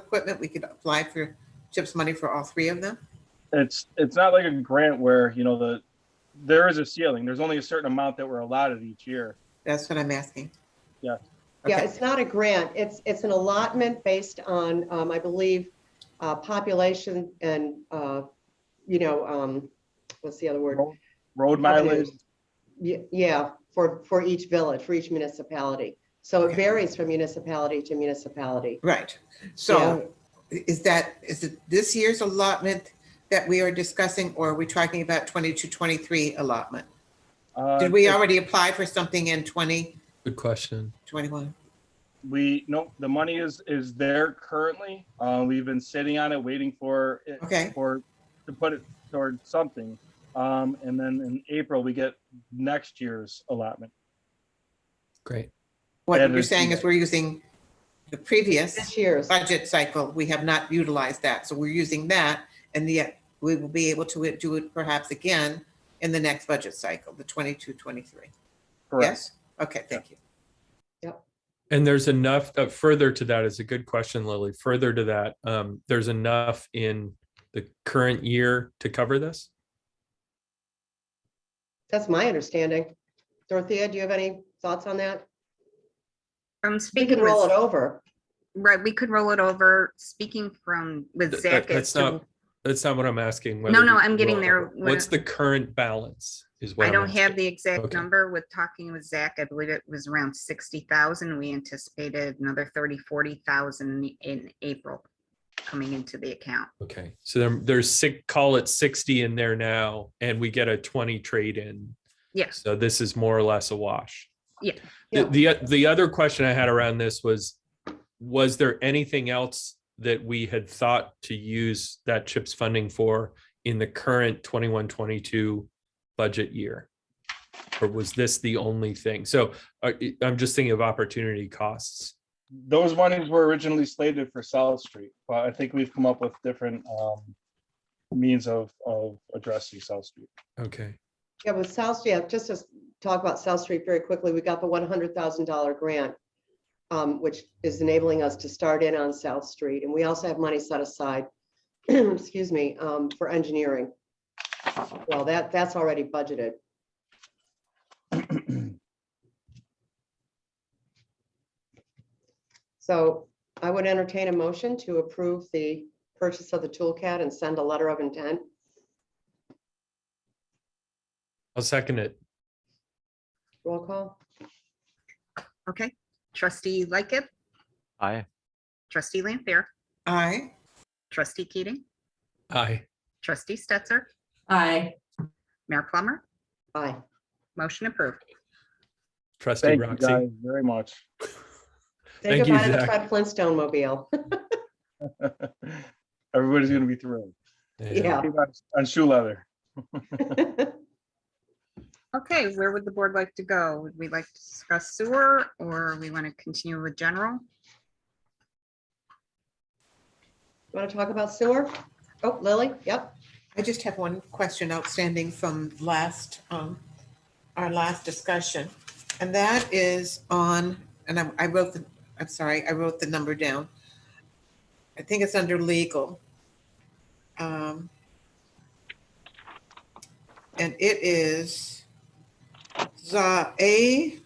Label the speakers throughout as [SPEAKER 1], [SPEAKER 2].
[SPEAKER 1] equipment, we could apply for CHIPS money for all three of them?
[SPEAKER 2] it's it's not like a grant where you know the there is a ceiling. There's only a certain amount that we're allotted each year.
[SPEAKER 1] That's what I'm asking.
[SPEAKER 2] Yeah.
[SPEAKER 3] Yeah,
[SPEAKER 1] Okay.
[SPEAKER 3] it's not a grant. It's, it's an allotment based on, um, I believe, uh, population and, uh, you know, um, what's the other word?
[SPEAKER 2] Road road mileage.
[SPEAKER 3] Ye- Yeah, for, for each village, for each municipality. So it
[SPEAKER 1] Okay.
[SPEAKER 3] varies from municipality to municipality.
[SPEAKER 1] Right. So is that, is it this year's allotment that we are discussing, or are we talking about 22, 23 allotment?
[SPEAKER 2] Uh,
[SPEAKER 1] Did we
[SPEAKER 2] it-
[SPEAKER 1] already apply for something in 2021?
[SPEAKER 4] Good question.
[SPEAKER 2] We no. The money is is there currently. Uh, we've been sitting on it, waiting for it,
[SPEAKER 1] Okay.
[SPEAKER 2] for to put it toward something. Um, and then in April we get next year's allotment.
[SPEAKER 4] Great.
[SPEAKER 1] What
[SPEAKER 2] Better
[SPEAKER 1] you're
[SPEAKER 2] do
[SPEAKER 1] saying is
[SPEAKER 2] that.
[SPEAKER 1] we're using the previous
[SPEAKER 3] This year's,
[SPEAKER 1] budget cycle. We have not utilized that, so we're using that. And yet we will be able to do it perhaps again in the next budget cycle, the 22, 23.
[SPEAKER 2] Correct.
[SPEAKER 1] Yes? Okay, thank you.
[SPEAKER 4] And there's enough uh, further to that is a good question, Lily. Further to that, um, there's enough in the current year to cover this.
[SPEAKER 3] that's my understanding. Dorothea, do you have any thoughts on that?
[SPEAKER 5] From
[SPEAKER 3] We can
[SPEAKER 5] speaking
[SPEAKER 3] roll
[SPEAKER 5] with,
[SPEAKER 3] it over.
[SPEAKER 5] right, we could roll it over, speaking from, with
[SPEAKER 4] Th-
[SPEAKER 5] Zach.
[SPEAKER 4] that's
[SPEAKER 5] as to-
[SPEAKER 4] not- That's not what I'm asking.
[SPEAKER 5] No,
[SPEAKER 4] whether
[SPEAKER 5] no,
[SPEAKER 4] we
[SPEAKER 5] I'm getting
[SPEAKER 4] will.
[SPEAKER 5] there.
[SPEAKER 4] What's the current balance is what
[SPEAKER 5] I
[SPEAKER 4] I'm
[SPEAKER 5] don't have
[SPEAKER 4] asking.
[SPEAKER 5] the exact
[SPEAKER 4] Okay.
[SPEAKER 5] number with talking with Zach. I believe it was around sixty thousand. We anticipated another thirty, forty thousand in April coming into the account.
[SPEAKER 4] Okay, so there, there's six, call it sixty in there now, and we get a twenty trade in.
[SPEAKER 5] Yes,
[SPEAKER 4] So this is more or less a wash.
[SPEAKER 3] Yeah.
[SPEAKER 4] The, the the other question I had around this was, was there anything else that we had thought to use that CHIPS funding for in the current 21-22 budget year? Or was this the only thing? So uh, I- I'm just thinking of opportunity costs.
[SPEAKER 2] Those monies were originally slated for South Street, but I think we've come up with different um, means of of addressing South Street.
[SPEAKER 4] Okay,
[SPEAKER 3] Yeah, with South, yeah, just to s- talk about South Street very quickly, we got the one hundred thousand dollar grant, um, which is enabling us to start in on South Street, and we also have money set aside, excuse me, um, for engineering. Well, that, that's already budgeted. So I would entertain a motion to approve the purchase of the toolcat and send a letter of intent.
[SPEAKER 4] I'll second it.
[SPEAKER 3] Roll call.
[SPEAKER 5] okay. Trustee Lightgib,
[SPEAKER 6] Aye.
[SPEAKER 5] trustee Lampier,
[SPEAKER 1] Aye.
[SPEAKER 5] trustee Keating,
[SPEAKER 4] Aye.
[SPEAKER 5] trustee Stetser,
[SPEAKER 7] Aye.
[SPEAKER 5] Mayor Plummer,
[SPEAKER 3] Aye.
[SPEAKER 5] motion approved.
[SPEAKER 4] Trustee
[SPEAKER 2] Thank you
[SPEAKER 4] Roxy.
[SPEAKER 2] guys very much.
[SPEAKER 3] Say
[SPEAKER 4] Thank you,
[SPEAKER 3] goodbye to the
[SPEAKER 4] Zach.
[SPEAKER 3] Fred Flintstone mobile.
[SPEAKER 2] Everybody's gonna be thrilled.
[SPEAKER 3] Yeah.
[SPEAKER 2] Pretty much On shoe leather.
[SPEAKER 5] Okay, where would the board like to go? Would we like to discuss sewer or we want to continue with general?
[SPEAKER 3] Want to talk about sewer? Oh, Lily, yep.
[SPEAKER 1] I just have one question outstanding from last, um, our last discussion. And that is on, and I, I wrote the, I'm sorry, I wrote the number down. I think it's under legal. Um, And it is the A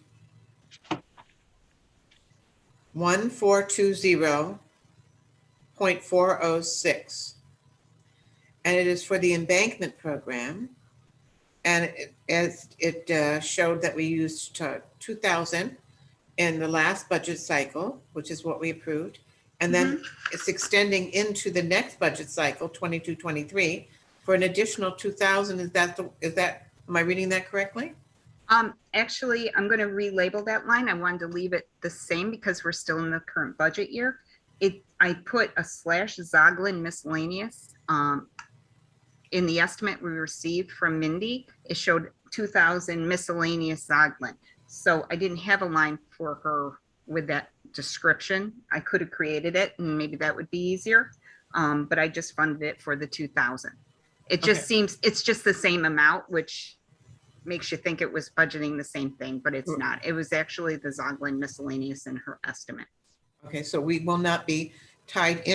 [SPEAKER 1] one four two zero point four oh six and it is for the embankment program. And it- as it uh, showed that we used uh, 2,000 in the last budget cycle, which is what we approved. And then it's extending into the next budget cycle, 22, 23, for an additional 2,000. Is that, the- is that, am I reading that correctly?
[SPEAKER 5] Um, actually, I'm gonna relabel that line. I wanted to leave it the same because we're still in the current budget year. It, I put a slash Zoglin miscellaneous, um, in the estimate we received from Mindy, it showed two thousand miscellaneous Zoglin. So I didn't have a line for her with that description. I could have created it and maybe that would be easier. Um, but I just funded it for the two thousand. It just
[SPEAKER 1] Okay.
[SPEAKER 5] seems, it's just the same amount, which makes you think it was budgeting the same thing, but it's
[SPEAKER 1] Mm.
[SPEAKER 5] not. It was actually the Zoglin miscellaneous in her estimate.
[SPEAKER 1] Okay, so we will not be tied in.